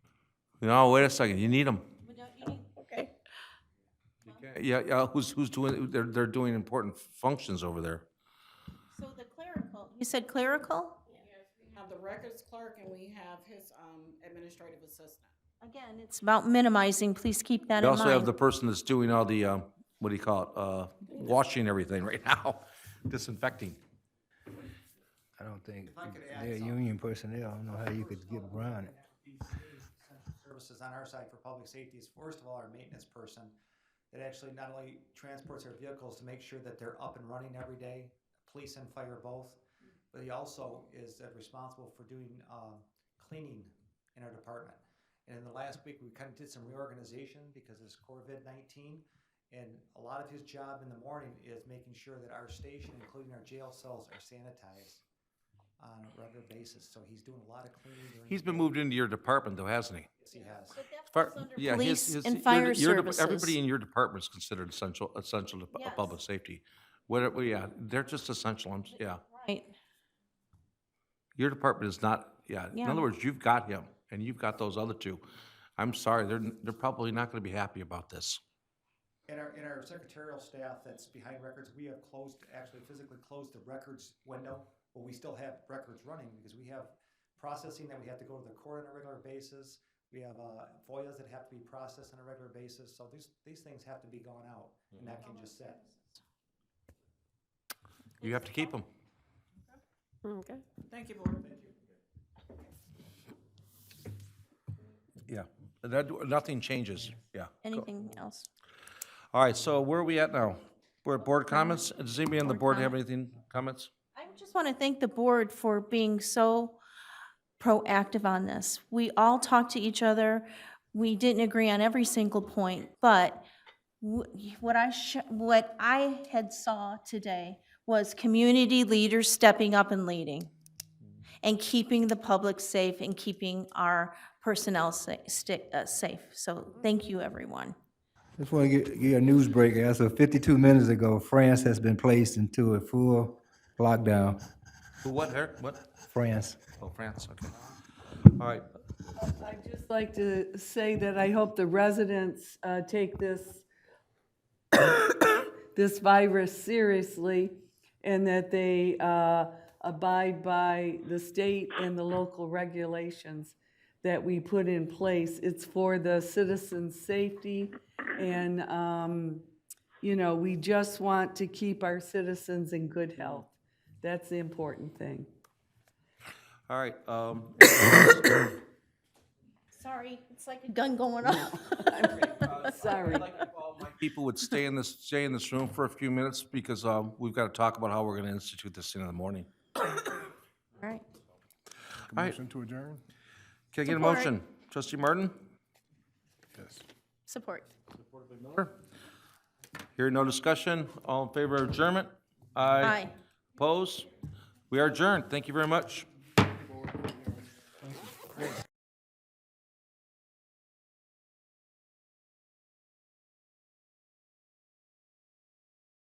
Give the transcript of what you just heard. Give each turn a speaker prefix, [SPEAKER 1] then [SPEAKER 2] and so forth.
[SPEAKER 1] No, wait a second, you need them.
[SPEAKER 2] Okay.
[SPEAKER 1] Yeah, yeah, who's, who's doing, they're, they're doing important functions over there.
[SPEAKER 3] So the clerical, you said clerical?
[SPEAKER 2] We have the records clerk and we have his um, administrative assistant.
[SPEAKER 3] Again, it's about minimizing, please keep that
[SPEAKER 1] They
[SPEAKER 3] in
[SPEAKER 1] also have the
[SPEAKER 3] mind.
[SPEAKER 1] person that's doing all the, um, what do you call it, uh, washing everything right now, disinfecting.
[SPEAKER 4] I don't think, they're union personnel, I don't know how you could get around it.
[SPEAKER 5] Services on our side for public safety is first of all, our maintenance person that actually not only transports our vehicles to make sure that they're up and running every day, police and fire both, but he also is uh, responsible for doing, um, cleaning in our department. And in the last week, we kind of did some reorganization because of this COVID nineteen. And a lot of his job in the morning is making sure that our station, including our jail cells, are sanitized on a regular basis. So he's doing a lot of cleaning. during
[SPEAKER 1] He's
[SPEAKER 5] the
[SPEAKER 1] been
[SPEAKER 5] day.
[SPEAKER 1] moved into your department though, hasn't he?
[SPEAKER 5] Yes, He has.
[SPEAKER 1] Fire-
[SPEAKER 3] falls under
[SPEAKER 1] yeah, his-
[SPEAKER 3] police
[SPEAKER 1] his-
[SPEAKER 3] and
[SPEAKER 1] your-
[SPEAKER 3] fire
[SPEAKER 1] your dep-
[SPEAKER 3] services.
[SPEAKER 1] Everybody in your department's considered essential, essential to pu- uh,
[SPEAKER 3] Yes.
[SPEAKER 1] public safety. Whatever, yeah, they're just essential, I'm, yeah.
[SPEAKER 3] Right,
[SPEAKER 1] Your department is not, yeah, in
[SPEAKER 3] Yeah.
[SPEAKER 1] other words, you've got him, and you've got those other two. I'm sorry, they're, they're probably not gonna be happy about this.
[SPEAKER 5] In our, in our secretarial staff that's behind records, we have closed, actually physically closed the records window, but we still have records running because we have processing that we have to go to the court on a regular basis. We have uh, FOIAs that have to be processed on a regular basis, so these, these things have to be gone out and that can just sit.
[SPEAKER 1] You have to keep them.
[SPEAKER 6] Okay.
[SPEAKER 2] Thank you, board. Thank you.
[SPEAKER 1] Yeah, that, nothing changes, yeah.
[SPEAKER 3] anything else?
[SPEAKER 1] All right, so where are we at now? We're at board comments? Does anybody on the board have anything, comments?
[SPEAKER 3] I just want to thank the board for being so proactive on this. We all talked to each other. We didn't agree on every single point, but wh- what I, sh- what I had saw today was community leaders stepping up and leading and keeping the public safe and keeping our personnel sa- sti- uh, safe. So thank you, everyone.
[SPEAKER 4] Just want to get, get a news break. As of fifty-two minutes ago, France has been placed into a full lockdown.
[SPEAKER 1] Who, what, her, what?
[SPEAKER 4] France.
[SPEAKER 1] Oh, France, okay. All right,
[SPEAKER 6] I'd just like to say that I hope the residents uh, take this, this virus seriously and that they uh, abide by the state and the local regulations that we put in place. It's for the citizens' safety and, um, you know, we just want to keep our citizens in good health. That's the important thing.
[SPEAKER 1] all right, um,
[SPEAKER 3] Sorry, it's like a gun going off.
[SPEAKER 6] Sorry.
[SPEAKER 1] people would stay in this, stay in this room for a few minutes because, um, we've got to talk about how we're going to institute this thing in the morning.
[SPEAKER 3] All right.
[SPEAKER 1] Motion to adjourn? Can I get a motion? Trustee Martin?
[SPEAKER 3] Support.
[SPEAKER 1] Miller? Hearing no discussion, all in favor of adjournment?
[SPEAKER 3] Aye.
[SPEAKER 1] Opposed? We are adjourned. Thank you very much.